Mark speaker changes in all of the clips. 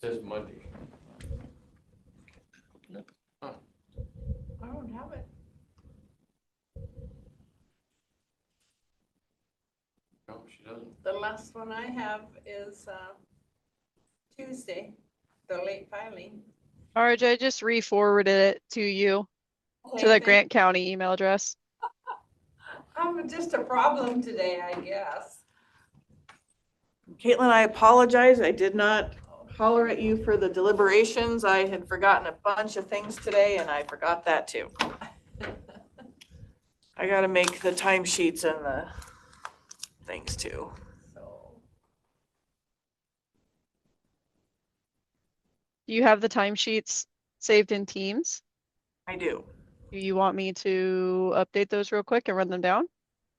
Speaker 1: Says Monday.
Speaker 2: I don't have it.
Speaker 1: No, she doesn't.
Speaker 2: The last one I have is uh, Tuesday, the late filing.
Speaker 3: Arj, I just re-forwarded it to you, to
Speaker 2: Okay,
Speaker 3: the
Speaker 2: thank-
Speaker 3: Grant County email address.
Speaker 2: I'm just a problem today, I guess.
Speaker 4: Caitlin, I apologize. I did not holler at you for the deliberations. I had forgotten a bunch of things today and I forgot that too. I gotta make the timesheets and the things too.
Speaker 2: So,
Speaker 3: Do you have the timesheets saved in Teams?
Speaker 4: I do.
Speaker 3: Do you want me to update those real quick and run them down?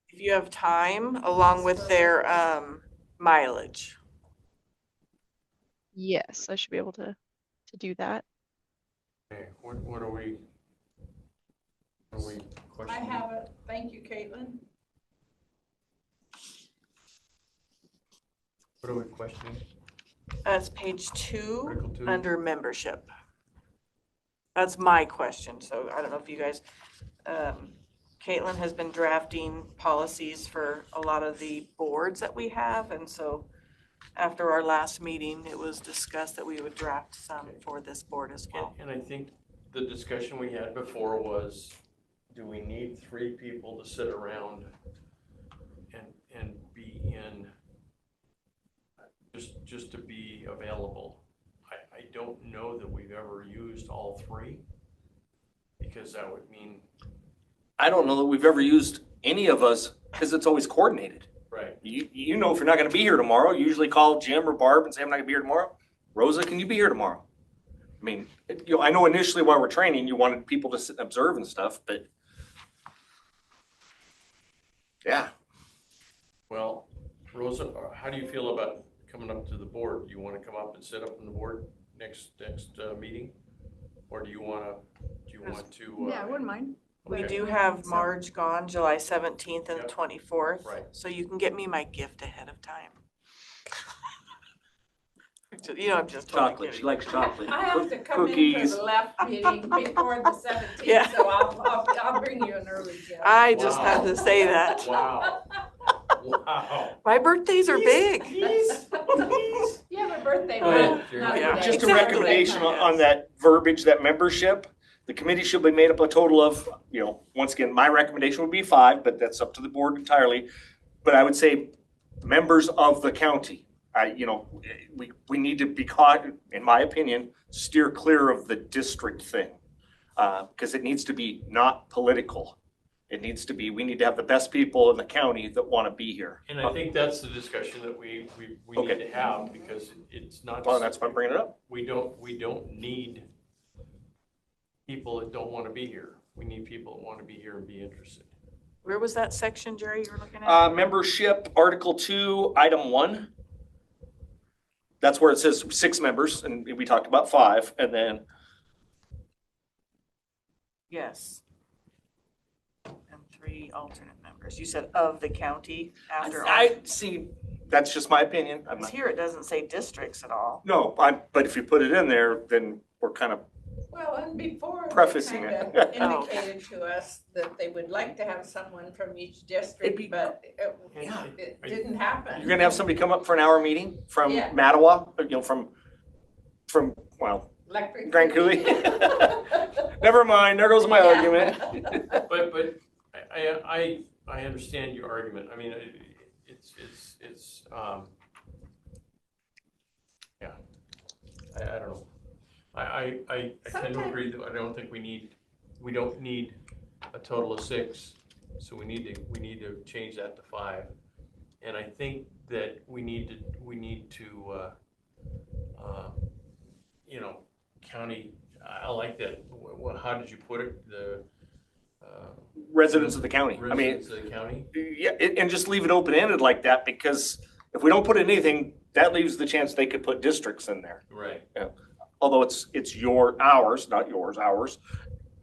Speaker 4: If you have time, along with their um mileage.
Speaker 3: Yes, I should be able to, to do that.
Speaker 1: Okay, what, what are we? Are we
Speaker 2: I
Speaker 1: questioning?
Speaker 2: have it. Thank you, Caitlin.
Speaker 1: What are we questioning?
Speaker 4: That's page two,
Speaker 1: Article two?
Speaker 4: under membership. That's my question. So I don't know if you guys, um, Caitlin has been drafting policies for a lot of the boards that we have. And so after our last meeting, it was discussed that we would draft some for this board as
Speaker 1: And,
Speaker 4: well.
Speaker 1: and I think the discussion we had before was, do we need three people to sit around and, and be in, just, just to be available? I, I don't know that we've ever used all three, because that would mean,
Speaker 5: I don't know that we've ever used any of us because it's always coordinated.
Speaker 1: right,
Speaker 5: You, you know, if you're not going to be here tomorrow, you usually call Jim or Barb and say, I'm not going to be here tomorrow. Rosa, can you be here tomorrow? I mean, it- you know, I know initially while we're training, you wanted people to sit and observe and stuff, but yeah,
Speaker 1: well, Rosa, how do you feel about coming up to the board? Do you want to come up and sit up on the board next, next uh, meeting? Or do you want to, do you want to? uh,
Speaker 6: Yeah, I wouldn't mind.
Speaker 4: We
Speaker 1: okay.
Speaker 4: do have Marge gone July seventeenth and
Speaker 1: Yep.
Speaker 4: twenty-fourth.
Speaker 1: Right.
Speaker 4: So you can get me my gift ahead of time. You know, I'm just totally
Speaker 5: chocolate. She
Speaker 4: kidding.
Speaker 5: likes chocolate.
Speaker 2: I have to come in for
Speaker 5: Cookies.
Speaker 2: the left meeting before the
Speaker 4: Yeah.
Speaker 2: seventeenth, so I'll, I'll, I'll bring you an early gift.
Speaker 4: I just had
Speaker 1: Wow.
Speaker 4: to say that.
Speaker 1: Wow. Wow.
Speaker 4: My birthdays are big.
Speaker 2: You have a birthday.
Speaker 1: Go
Speaker 2: one,
Speaker 1: ahead, Jerry.
Speaker 2: not
Speaker 4: Yeah,
Speaker 2: today.
Speaker 5: Just a
Speaker 4: Exactly.
Speaker 5: recommendation on, on that verbiage, that membership, the committee should be made up a total of, you know, once again, my recommendation would be five, but that's up to the board entirely. But I would say members of the county, I, you know, we, we need to be caught, in my opinion, steer clear of the district thing. Uh, cause it needs to be not political. It needs to be, we need to have the best people in the county that wanna be here.
Speaker 1: And I think that's the discussion that we, we, we need
Speaker 5: Okay.
Speaker 1: to have, because it's not,
Speaker 5: Well, that's why I'm bringing it up.
Speaker 1: we don't, we don't need people that don't want to be here. We need people that want to be here and be interested.
Speaker 4: Where was that section, Jerry, you were looking at?
Speaker 5: Uh, membership, Article two, item one. That's where it says six members, and we talked about five, and then,
Speaker 4: Yes. And three alternate members. You said of the county after.
Speaker 5: I see, that's just my opinion, I'm
Speaker 4: alternates.
Speaker 5: not,
Speaker 4: Here it doesn't say districts at all.
Speaker 5: no, I, but if you put it in there, then we're kind of,
Speaker 2: Well, and before. they
Speaker 5: Prefacing it.
Speaker 2: kinda
Speaker 4: Oh.
Speaker 2: Indicated to us that they would like to have someone from each
Speaker 5: be-
Speaker 2: district, but it,
Speaker 1: Yeah.
Speaker 2: it didn't happen.
Speaker 5: you're gonna have somebody come up for an hour meeting from
Speaker 2: Yeah.
Speaker 5: Mattawa, uh, you know, from, from, well,
Speaker 2: Electric.
Speaker 5: Grand Coulee. never mind, there goes my
Speaker 2: Yeah.
Speaker 5: argument.
Speaker 1: But, but I, I, I I understand your argument. I mean, it- it's, it's, it's, um, yeah, I, I don't know. I, I, I, I tend to agree that I don't think we need, we don't need a total of six. So we need to, we need to change that to five. And I think that we need to, we need to, uh, uh, you know, county, I I like that. Wh- wh- How did you put it? The, uh,
Speaker 5: Residents of the county, I mean,
Speaker 1: residents of the county?
Speaker 5: Yeah, and, and just leave it open-ended like that, because if we don't put anything, that leaves the chance they could put districts in there.
Speaker 1: Right.
Speaker 5: Although it's, it's your, ours, not yours, ours,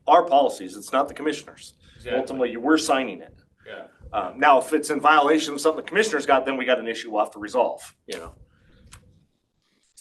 Speaker 5: our policies, it's not the commissioners.
Speaker 1: Exactly.
Speaker 5: Ultimately, we're signing it.
Speaker 1: Yeah.
Speaker 5: Um, now, if it's in violation of something the commissioners got, then we got an issue we'll have to resolve, you know?